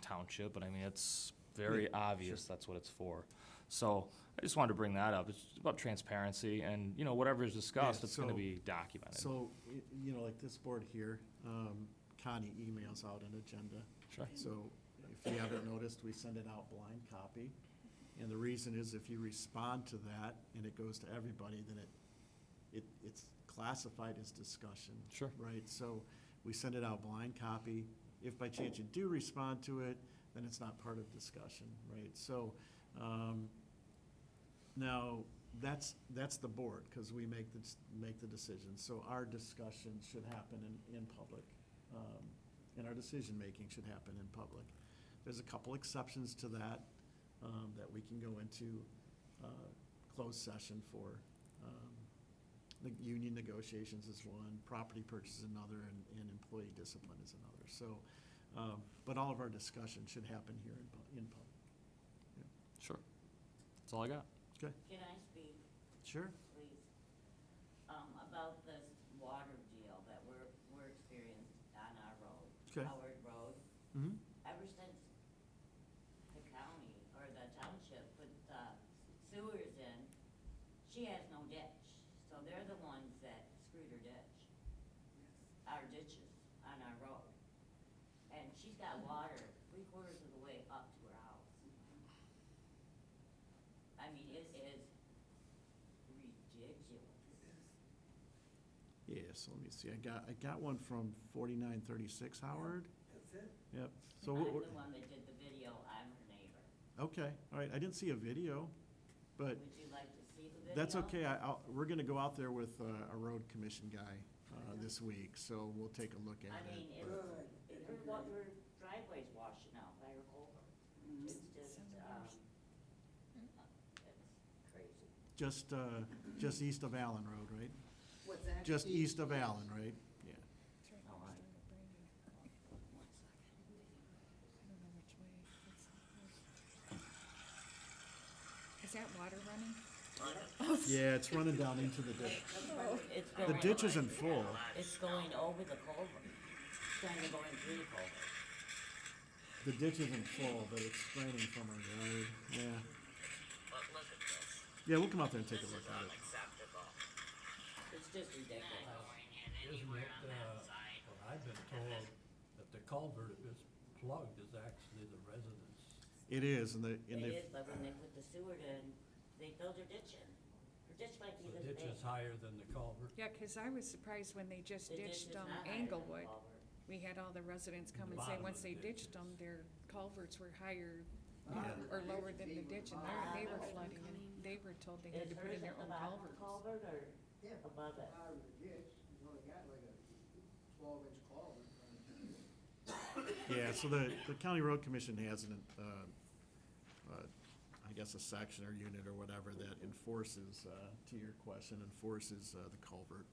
township, but I mean, it's very obvious that's what it's for. So I just wanted to bring that up. It's about transparency and, you know, whatever is discussed, Yeah, it's gonna so- be documented. So, y- you know, like this board here, um, Connie emails out an agenda. Sure. So if you haven't noticed, we send it out blind copy. And the reason is if you respond to that and it goes to everybody, then it, it, it's classified as discussion. Sure. Right, so we send it out blind copy. If by chance you do respond to it, then it's not part of discussion, right? So, um, now, that's, that's the board, because we make the, make the decision, so our discussion should happen in, in public. um, And our decision-making should happen in public. There's a couple exceptions to that, um, that we can go into, uh, closed session for. Um, The union negotiations is one, property purchase is another, and, and employee discipline is another, so. um, But all of our discussion should happen here in, pu- in public. Sure. That's all I got. Okay. Can I speak, Sure. please, um, about this water deal that we're, we're experiencing on our road? Okay. Howard Road, Mm-hmm. ever since the county or the township put the sewers in, she has no ditch, so they're the ones that screwed her ditch. Our ditches on our road. And she's got water three quarters of the way up to her house. I mean, it is ridiculous. Yeah, so let me see, I got, I got one from forty-nine thirty-six Howard, That's it? yep, so, I'm what we're- the one that did the video, I'm her neighbor. okay, all right, I didn't see a video, but Would you like to see the video? that's okay, I, I'll, we're gonna go out there with uh, a road commission guy, uh, this week, so we'll take a look I at mean, it. it, Good. it- her, wa- her driveway's washing out by her culvert. It's just, um, it's crazy. Just, uh, just east of Allen Road, right? What's that? Just east of Allen, right? Yeah, All right. Is that water running? yeah, it's running down into the ditch. It's The going- ditch isn't full, It's going over the culvert, it's kind of going through the culvert. the ditch isn't full, but it's draining from our yard, yeah. But look at this. Yeah, we'll come out there and take This a look is at it. unacceptable. It's just ridiculous. Not going in Isn't anywhere it, on that uh, side. Well, I've been told that the culvert, if it's plugged, is actually the residence. It is, and the, and It the, is, but when they put the sewer in, they filled her ditch in. Her ditch might be The this ditch big. is higher than the culvert. Yeah, 'cause I was surprised when they just The ditch is ditched, um, not higher than the Englewood. culvert. We had all the residents come The and say, bottom once of they the ditch ditched is- them, their culverts were higher uh, or lower than the ditch and Ah, they, they were okay. flooding and they were told they had Is to put hers in their at the own bottom of the culverts. culvert or Yeah, above it? out of the ditch, you only got like a twelve inch culvert. Yeah, so the, the county road commission has an, uh, uh, I guess a section or unit or whatever that enforces, uh, to your question, enforces, uh, the culvert.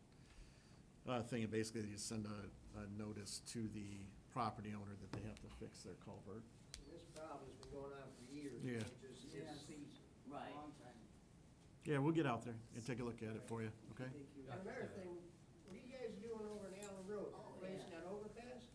Uh, thing, and basically you send a, a notice to the property owner that they have to fix their culvert. This problem's been going on for years. Yeah. It just, it's season. Right. Long time. Yeah, we'll get out there and take a look at it for you, okay? Thank you. Another thing, what are you guys doing over in Allen Road? Place not overpass?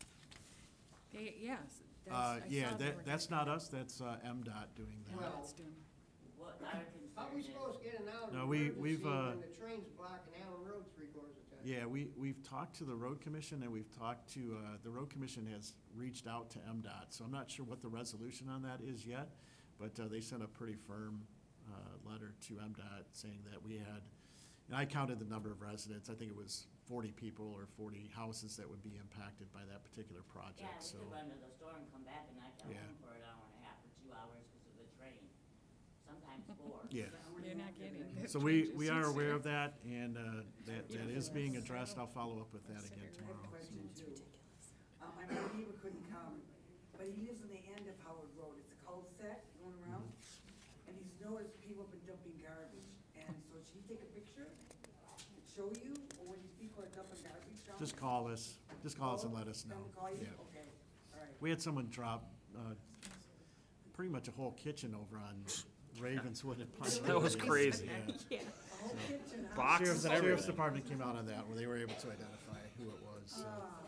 They- Yes, Uh, that's, I yeah, saw they were that, that's gonna- not us, that's, uh, MDOT doing that. Well- MDOT's doing it. What our How are we concern supposed is, to get an out No, of we- emergency we've, uh, when the train's blocking Allen Road three quarters of the time? Yeah, we, we've talked to the road commission and we've talked to, uh, the road commission has reached out to MDOT, so I'm not sure what the resolution on that is yet, but, uh, they sent a pretty firm, uh, letter to MDOT saying that we had, and I counted the number of residents, I think it was forty people or forty houses that would be impacted by that particular yeah, project, so. we could run to the store and come back and not get Yeah. home for an hour and a half or two hours because of the train, sometimes four. Yeah, You're not getting this. so we, we are aware of that and, uh, that, that is being addressed, I'll follow up with that again tomorrow. Question too. Um, my neighbor couldn't come, but he lives on the end of Howard Road, it's a cul-de-sac going around, and he's noticed people have been dumping garbage, and so should he take a picture, show you, or when these people are dumping garbage down? Just call us, just call us and let us know, Them call you, yeah. okay, all right. We had someone drop, uh, pretty much a whole kitchen over on Ravenswood and Pine That was crazy. Yeah. The whole kitchen, huh? Boxes Sheriff's and Sheriff's everything. Department came out on that, where they were able to identify who it was, so. Ah,